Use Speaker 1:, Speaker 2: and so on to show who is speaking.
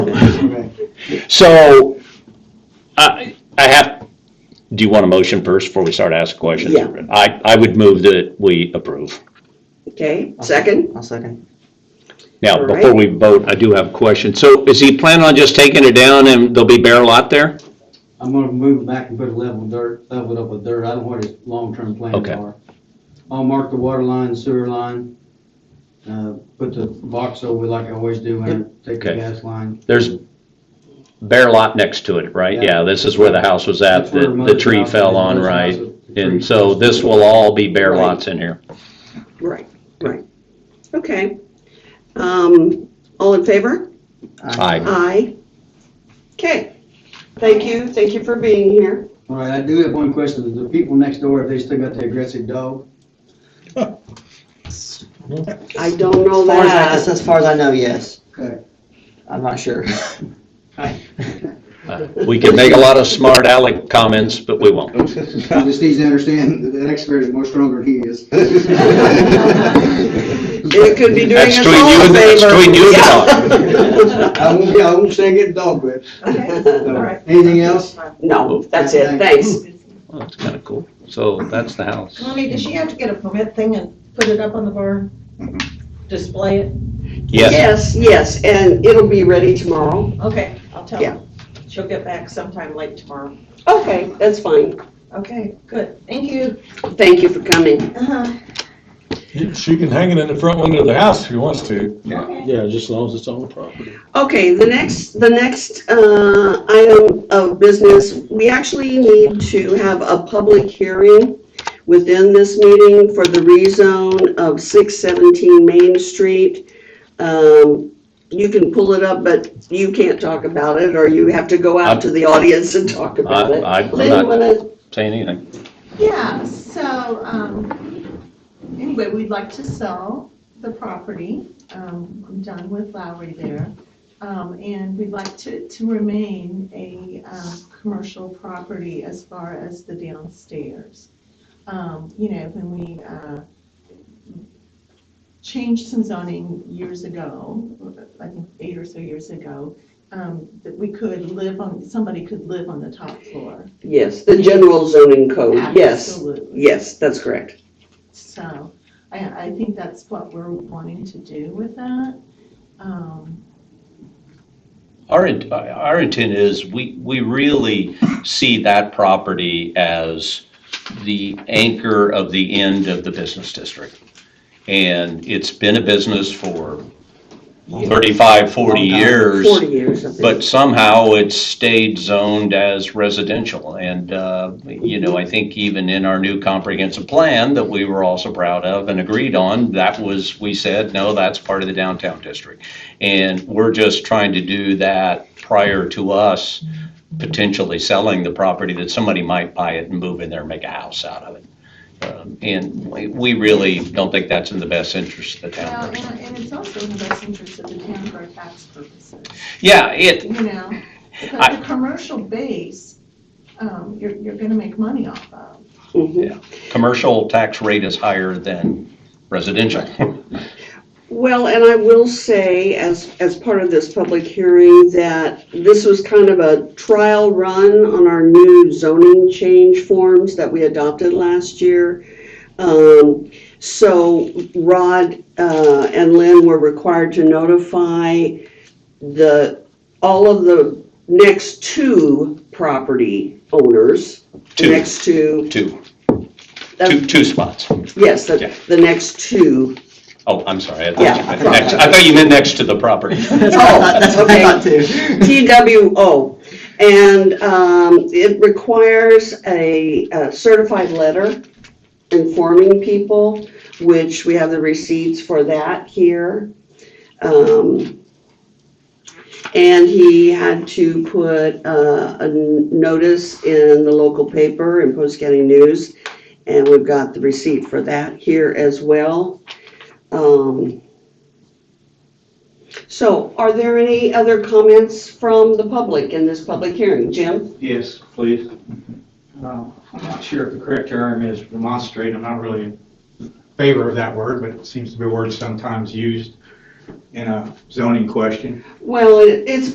Speaker 1: So, I, I have, do you want a motion first before we start asking questions?
Speaker 2: Yeah.
Speaker 1: I, I would move that we approve.
Speaker 2: Okay,
Speaker 3: Uh-huh.
Speaker 2: second?
Speaker 3: I'll second.
Speaker 1: Now,
Speaker 2: All
Speaker 1: before
Speaker 2: right.
Speaker 1: we vote, I do have a question. So is he planning on just taking it down and there'll be bare lot there?
Speaker 4: I'm gonna move back and put a level of dirt, level it up with dirt, I don't know what his long-term plans
Speaker 1: Okay.
Speaker 4: are. I'll mark the water line, sewer line, uh, put the box over like I always do, and take the
Speaker 1: Okay.
Speaker 4: gas line.
Speaker 1: There's bare lot next to it, right?
Speaker 4: Yeah.
Speaker 1: Yeah, this is where the house was at,
Speaker 4: That's where
Speaker 1: the, the
Speaker 4: mother's
Speaker 1: tree
Speaker 4: house is,
Speaker 1: fell on,
Speaker 4: mother's
Speaker 1: right?
Speaker 4: house is- the
Speaker 1: And
Speaker 4: tree-
Speaker 1: so this will all be bare
Speaker 2: Right.
Speaker 1: lots in here.
Speaker 2: Right, right. Okay. Um, all in favor?
Speaker 1: Aye.
Speaker 2: Aye. Okay. Thank you, thank you for being here.
Speaker 4: All right, I do have one question, the people next door, if they still got the aggressive dog?
Speaker 2: I don't know
Speaker 3: As far as, I-
Speaker 2: that.
Speaker 3: as far as I know, yes.
Speaker 4: Okay.
Speaker 3: I'm not sure.
Speaker 1: Uh, We can make a lot of smart aleck comments, but we won't.
Speaker 4: He just needs to understand that the next bear is more stronger than he is.
Speaker 2: It could be doing
Speaker 1: That's
Speaker 2: us
Speaker 1: between you
Speaker 2: all a
Speaker 1: and- that's
Speaker 2: favor.
Speaker 1: between you and
Speaker 4: I won't, I won't say get dog whipped.
Speaker 2: Yeah.
Speaker 4: So, Anything else?
Speaker 2: No, that's it, thanks.
Speaker 1: Well, That's kind of cool. So that's the house.
Speaker 5: Tommy, does she have to get a permit thing and put it up on the barn? Display it?
Speaker 1: Yes,
Speaker 2: Yes, yes, and it'll be ready tomorrow.
Speaker 5: Okay, I'll tell
Speaker 2: Yeah.
Speaker 5: her. She'll get back sometime late tomorrow.
Speaker 2: Okay, that's fine.
Speaker 5: Okay, good. Thank you.
Speaker 2: Thank you for coming.
Speaker 5: Uh-huh.
Speaker 6: She can hang it in the front window of the house if she wants to.
Speaker 5: Okay.
Speaker 7: Yeah, just as long as it's on the property.
Speaker 2: Okay, the next, the next uh, item of business, we actually need to have a public hearing within this meeting for the rezone of 617 Main Street. Um, You can pull it up, but you can't talk about it, or you have to go out to the audience and talk about it.
Speaker 1: I- I'm
Speaker 2: Lynn,
Speaker 1: not-
Speaker 2: wanna,
Speaker 1: say anything.
Speaker 8: Yeah, so, um, anyway, we'd like to sell the property. Um, I'm done with Lowry there. Um, and we'd like to, to remain a, um, commercial property as far as the downstairs. Um, you know, when we, uh, changed some zoning years ago, I think eight or so years ago, um, that we could live on, somebody could live on the top floor.
Speaker 2: yes, the general zoning code, Oh, yes,
Speaker 8: Absolutely.
Speaker 2: yes, that's correct.
Speaker 8: So I, I think that's what we're wanting to do with that. Um,
Speaker 1: Our, int- our intent is, we, we really see that property as the anchor of the end of the business district. And it's been a business for 35, 40 years.
Speaker 2: 40 years, I think.
Speaker 1: But somehow it's stayed zoned as residential. And, uh, you know, I think even in our new comprehensive plan that we were also proud of and agreed on, that was, we said, no, that's part of the downtown district. And we're just trying to do that prior to us potentially selling the property that somebody might buy it and move in there and make a house out of it. Um, And we- we really don't think that's in the best interest of the
Speaker 8: well,
Speaker 1: town.
Speaker 8: and, and it's also in the best interest of the town for tax purposes,
Speaker 1: Yeah, it,
Speaker 8: you know? Because
Speaker 1: I-
Speaker 8: the commercial base, um, you're, you're gonna make money off of.
Speaker 2: Mhm.
Speaker 1: commercial tax rate is higher than residential.
Speaker 2: Well, and I will say, as, as part of this public hearing, that this was kind of a trial run on our new zoning change forms that we adopted last year. Um, So Rod uh, and Lynn were required to notify the, all of the next two property owners. the
Speaker 1: Two.
Speaker 2: Next two,
Speaker 1: Two,
Speaker 2: that's-
Speaker 1: two, two spots.
Speaker 2: yes,
Speaker 1: Yeah.
Speaker 2: the, the next two.
Speaker 1: Oh, I'm sorry. I
Speaker 2: Yeah.
Speaker 1: thought you meant next, I thought you meant next to the property.
Speaker 3: That's what I thought, Oh, that's what I thought too.
Speaker 2: TWO. And um, it requires a a certified letter informing people, which we have the receipts for that here. Um, And he had to put uh, a n- notice in the local paper in Post County News, and we've got the receipt for that here as well. Um, so are there any other comments from the public in this public hearing? Jim?
Speaker 9: Yes, please. Uh, I'm not sure if the correct term is remonstrate, I'm not really in favor of that word, but it seems to be a word sometimes used in a zoning question.
Speaker 2: Well, it- it's